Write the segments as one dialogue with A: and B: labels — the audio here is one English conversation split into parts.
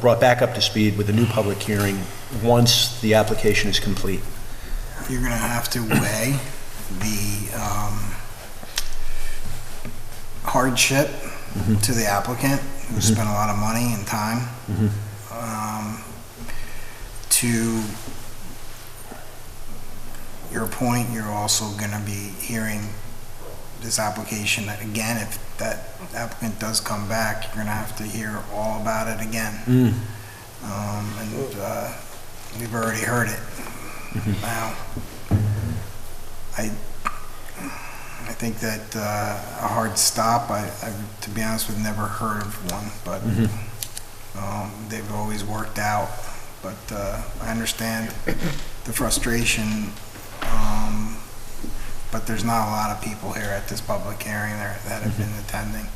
A: brought back up to speed with a new public hearing once the application is complete.
B: you're gonna have to weigh the um, hardship to the applicant, who spent a lot of money and time, um, to your point, you're also gonna be hearing this application, that again, if that applicant does come back, you're gonna have to hear all about it
A: Mm,
B: again. Um, and, uh, we've already heard it now. I, I think that uh, a hard stop, I, I- to be honest, we've never heard of one, but um, they've always worked out. But uh, I understand the frustration, um, but there's not a lot of people here at this public hearing there that have been attending.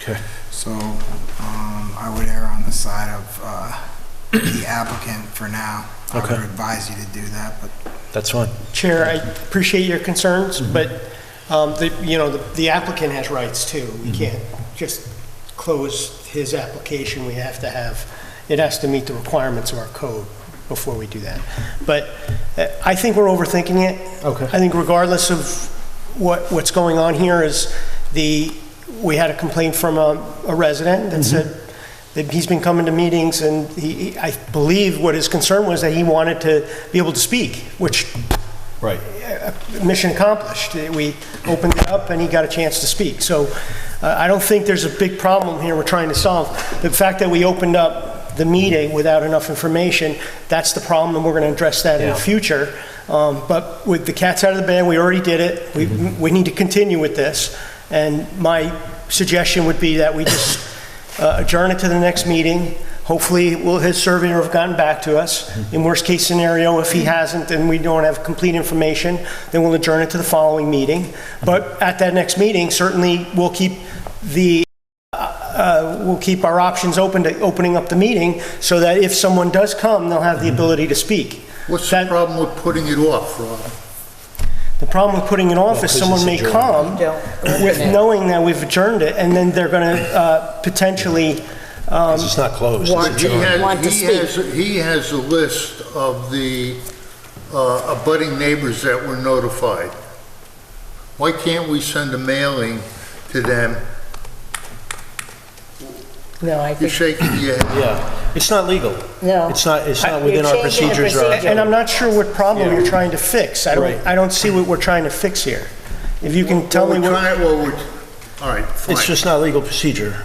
A: Okay.
B: So um, I would err on the side of uh, the applicant for now. I would
A: Okay.
B: advise you to do that, but
A: That's fine.
C: Chair, I appreciate your concerns, but, um, the, you know, the- the applicant has rights too. We can't just close his application. We have to have, it has to meet the requirements of our code before we do that. But uh, I think we're overthinking it.
A: Okay.
C: I think regardless of what, what's going on here is the, we had a complaint from a a resident that said that he's been coming to meetings and he, he- I believe what his concern was that he wanted to be able to speak, which
A: Right.
C: mission accomplished. Eh, We opened it up, and he got a chance to speak. So uh, I don't think there's a big problem here we're trying to solve. The fact that we opened up the meeting without enough information, that's the problem, and we're going to address that in
A: Yeah.
C: the future. Um, But with the cat's out of the bag, we already did it. We we need to continue with this. And my suggestion would be that we just uh, adjourn it to the next meeting. Hopefully, will his surveyor have gotten back to us? In worst-case scenario, if he hasn't and we don't have complete information, then we'll adjourn it to the following meeting. But at that next meeting, certainly, we'll keep the, uh, we'll keep our options open to opening up the meeting so that if someone does come, they'll have the ability to speak.
D: What's the
C: That-
D: problem with putting it off, Rob?
C: The problem with putting it off is
A: 'cause
C: someone
A: it's
C: may
A: adjourned.
C: come
E: Don't.
C: with knowing that we've adjourned it, and then they're going to potentially,
A: It's not closed.
E: Why-
A: It's
D: He
A: adjourned.
D: has-
E: Want to
D: he
E: speak.
D: has- He has a list of the uh, abutting neighbors that were notified. Why can't we send a mailing to them?
E: No, I
D: You're
E: think,
D: shaking your head.
A: Yeah, it's not legal.
E: No.
A: It's not, it's
C: I-
A: not within our
E: You're changing the
A: procedures. or our-
E: procedure.
C: and I'm not sure what problem you're trying to fix. I
A: Right.
C: don't, I don't see what we're trying to fix here. If you can tell
D: Well,
C: me
D: we're
C: what,
D: trying, well, we're, all right,
A: It's
D: fine.
A: just not legal procedure,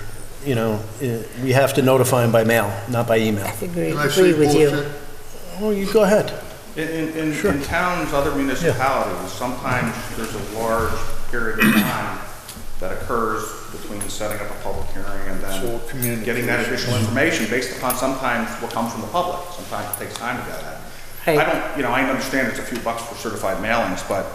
A: you know, eh, we have to notify them by mail, not by email.
E: I agree
D: Can I
E: agree
D: say
E: with you.
D: bullshit?
C: Oh,
A: Well, you go ahead.
F: In, in- in, in towns, other municipalities, sometimes there's a large period of time that occurs between setting up a public hearing and
D: So
F: then
D: communication.
F: getting that additional information based upon sometimes what comes from the public. Sometimes it takes time to get that.
E: Right.
F: I don't, you know, I understand it's a few bucks for certified mailings, but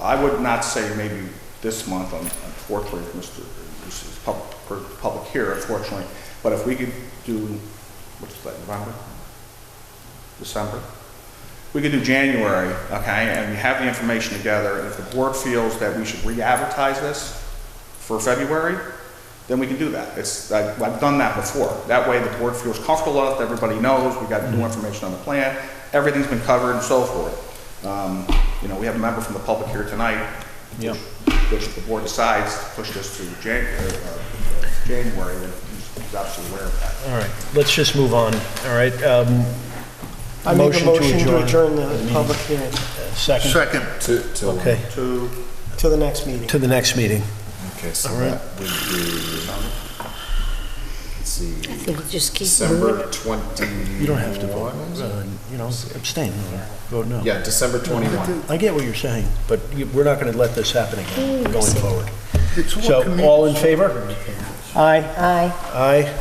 F: I would not say maybe this month, un- unfortunately, if Mr., this is public, for public here, unfortunately, but if we could do, what's that, November? December? We could do January, okay, and we have the information together, and if the board feels that we should re-advertise this for February, then we can do that. It's, I've, I've done that before. That way, the board feels comfortable enough, everybody knows, we got new information on the plan, everything's been covered and so forth. Um, you know, we have a member from the public here tonight.
A: Yeah.
F: Which the board decides to push this to Jan, uh, uh, January, and he's absolutely aware of that.
A: All right, let's just move on, all right? um,
C: I make a motion to adjourn the public hearing
A: Second,
D: Second,
G: To, to.
A: okay,
F: To
C: to the next meeting.
A: to the next meeting.
G: Okay, so
A: All right.
G: that would be, let's see,
E: I think just keep moving.
G: December twenty-one?
A: You don't have to vote, uh, you know, abstain or vote no.
G: Yeah, December twenty-one.
A: I get what you're saying, but you- we're not going to let this happen again going forward.
D: it's all
A: So, all in
D: community.
A: favor?
C: Aye.
E: Aye.
A: Aye,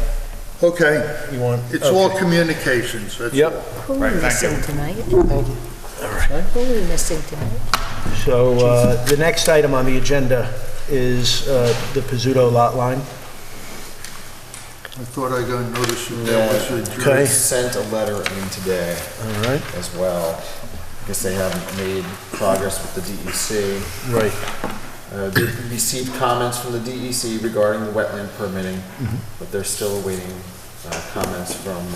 D: Okay,
A: you want?
D: it's all
A: okay.
D: communications, that's all.
A: Yep,
E: Who are
F: Right,
E: we
F: thank
E: missing
F: you.
E: tonight? Who are we missing tonight?
A: so uh, the next item on the agenda is uh, the Pizzuto lot line.
D: I thought I got notice that there was a jury.
A: Okay.
G: They Sent a letter in today
A: All right,
G: as well. I Guess they haven't made progress with the DEC.
A: right.
G: Uh, They received comments from the E DEC regarding the wetland permitting, but they're still awaiting uh, comments from